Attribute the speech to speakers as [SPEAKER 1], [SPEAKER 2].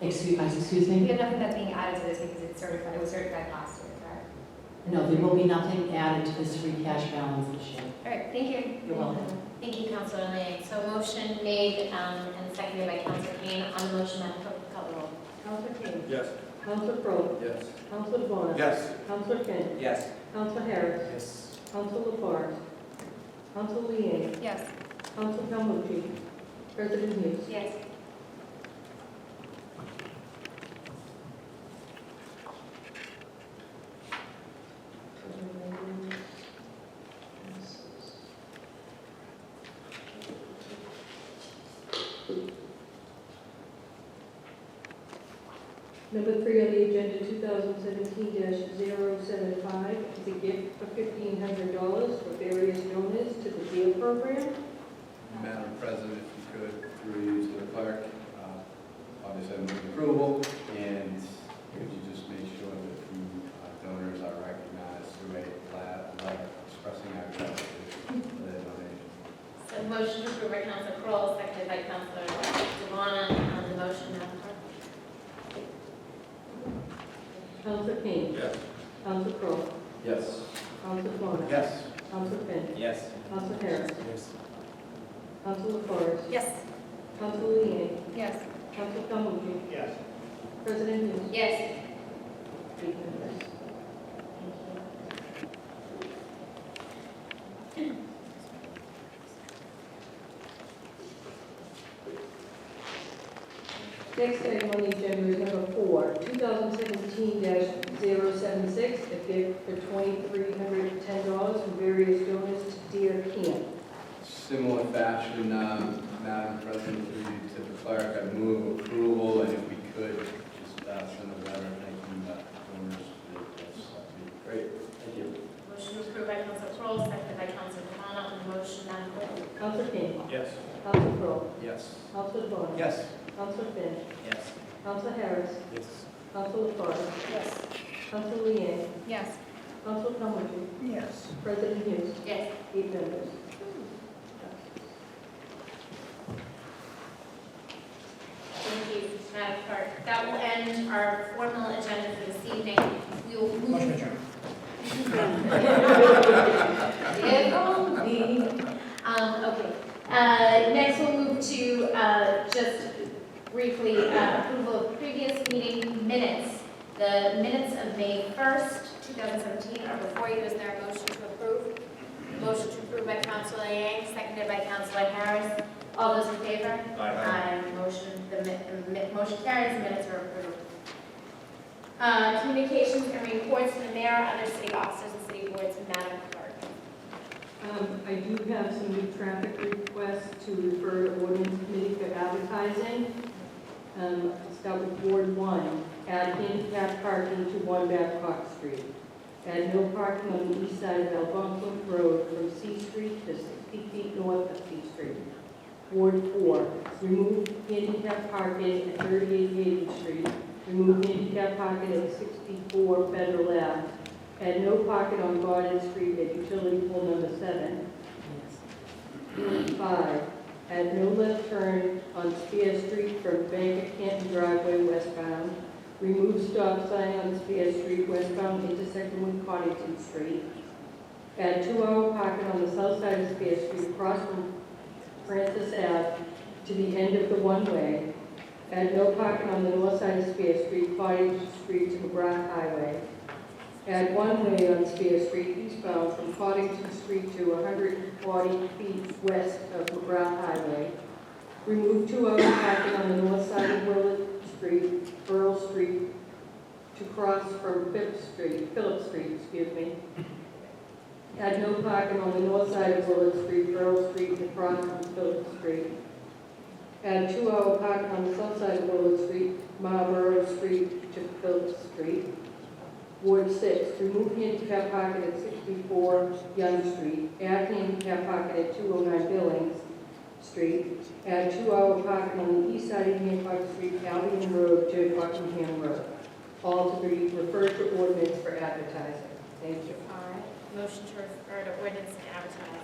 [SPEAKER 1] Excuse, excuse
[SPEAKER 2] We
[SPEAKER 1] me?
[SPEAKER 2] have nothing that's being added to this because it's certified, it was certified last year, correct?
[SPEAKER 1] No, there will be nothing added to this free cash balance this year.
[SPEAKER 2] All right, thank you.
[SPEAKER 1] You're welcome.
[SPEAKER 3] Thank you, Councilor Lang. So motion made um, and seconded by Councilor Kane. On the motion, Madam Clerk, call the roll.
[SPEAKER 4] Counselor King.
[SPEAKER 5] Yes.
[SPEAKER 4] Counselor Crowe.
[SPEAKER 5] Yes.
[SPEAKER 4] Counselor Vaughn.
[SPEAKER 5] Yes.
[SPEAKER 4] Counselor Finn.
[SPEAKER 5] Yes.
[SPEAKER 4] Counselor Harris.
[SPEAKER 5] Yes.
[SPEAKER 4] Counselor LaFars. Counselor Leeang.
[SPEAKER 2] Yes.
[SPEAKER 4] Counselor Calmucci. President Hughes.
[SPEAKER 3] Yes.
[SPEAKER 4] Number three on the agenda, 2017-075, is a gift of $1,500 for various donors to the DEAL program.
[SPEAKER 5] Madam President, if you could, through you to the clerk, uh, obviously I move approval, and could you just make sure that the uh, donors are recognized through a la- letter expressing our gratitude for their donation?
[SPEAKER 3] So motion approved by Councilor Kroll, seconded by Councilor Devon. On the motion, Madam Clerk.
[SPEAKER 4] Counselor King.
[SPEAKER 5] Yes.
[SPEAKER 4] Counselor Crowe.
[SPEAKER 5] Yes.
[SPEAKER 4] Counselor Vaughn.
[SPEAKER 5] Yes.
[SPEAKER 4] Counselor Finn.
[SPEAKER 5] Yes.
[SPEAKER 4] Counselor Harris.
[SPEAKER 5] Yes.
[SPEAKER 4] Counselor LaFars.
[SPEAKER 2] Yes.
[SPEAKER 4] Counselor Leeang.
[SPEAKER 2] Yes.
[SPEAKER 4] Counselor Calmucci.
[SPEAKER 5] Yes.
[SPEAKER 4] President Hughes.
[SPEAKER 3] Yes.
[SPEAKER 4] Thank you. Next item on the agenda is number four, 2017-076, a gift for $2,310 from various donors to Dear Camp.
[SPEAKER 5] Similar fashion, um, Madam President, through you to the clerk, I move approval, and if we could, just uh, send a letter thanking the donors. for their gifts. That'd be Great, thank you.
[SPEAKER 3] Motion approved by Councilor Kroll, seconded by Councilor Devon. On the motion, Madam Clerk.
[SPEAKER 4] Counselor King.
[SPEAKER 5] Yes.
[SPEAKER 4] Counselor Crowe.
[SPEAKER 5] Yes.
[SPEAKER 4] Counselor Vaughn.
[SPEAKER 5] Yes.
[SPEAKER 4] Counselor Finn.
[SPEAKER 5] Yes.
[SPEAKER 4] Counselor Harris.
[SPEAKER 5] Yes.
[SPEAKER 4] Counselor LaFars.
[SPEAKER 2] Yes.
[SPEAKER 4] Counselor Leeang.
[SPEAKER 2] Yes.
[SPEAKER 4] Counselor Calmucci.
[SPEAKER 5] Yes.
[SPEAKER 4] President Hughes.
[SPEAKER 3] Yes.
[SPEAKER 4] Eight members.
[SPEAKER 3] Thank you, Madam Clerk. That will end our formal agenda for this evening. We will move. Motion Um, okay, uh, next we'll move to, uh, just briefly, uh, approval of previous meeting minutes. The minutes of May first, two thousand seventeen are before you, is there a motion to approve? Motion to approve by Councilor Yang, seconded by Councilor Harris. All those in favor? Aye. Motion, the mi- the mi- motion carries, minutes are approved. Uh, Communications and reports from the mayor, other city officers, and city boards, Madam Clerk.
[SPEAKER 4] Um, I do have some new traffic requests to refer to ordinance committee for advertising. Um, start with Ward one, add handicap parking to one Babcock Street. Add no parking on the east side of Algonquin Road from C Street to sixty feet north of C Street. Ward four, remove handicap parking at thirty-eight Haven Street. Remove handicap parking at sixty-four Federal Ave. Add no pocket on Garden Street at utility pole number seven. Five, Add no left turn on Spear Street from Bank of Canton driveway westbound. Remove stop sign on Spear Street westbound intersecting with Cottington Street. Add two-hour pocket on the south side of Spear Street across from Francis Ave to the end of the one-way. Add no pocket on the north side of Spear Street, Cottington Street to McGrath Highway. Add one way on Spear Street eastbound from Cottington Street to 140 feet west of McGrath Highway. Remove two hour parking on the north side of Willard Street, Burl Street, to cross from Phillips Street, Phillips Street, excuse me. Add no parking on the north side of Willard Street, Burl Street, to cross from Phillips Street. Add two hour parking on the south side of Willard Street, Marlborough Street to Phillips Street. Ward six, remove handicap pocket at sixty-four Young Street, add handicap pocket at two oh nine Billings Street, add two-hour pocket on the east side of Hancock Street, Albion Road to Buckingham Road. All to be referred to ordinance for advertising. Thank you.
[SPEAKER 3] All right, motion to refer to ordinance and advertise.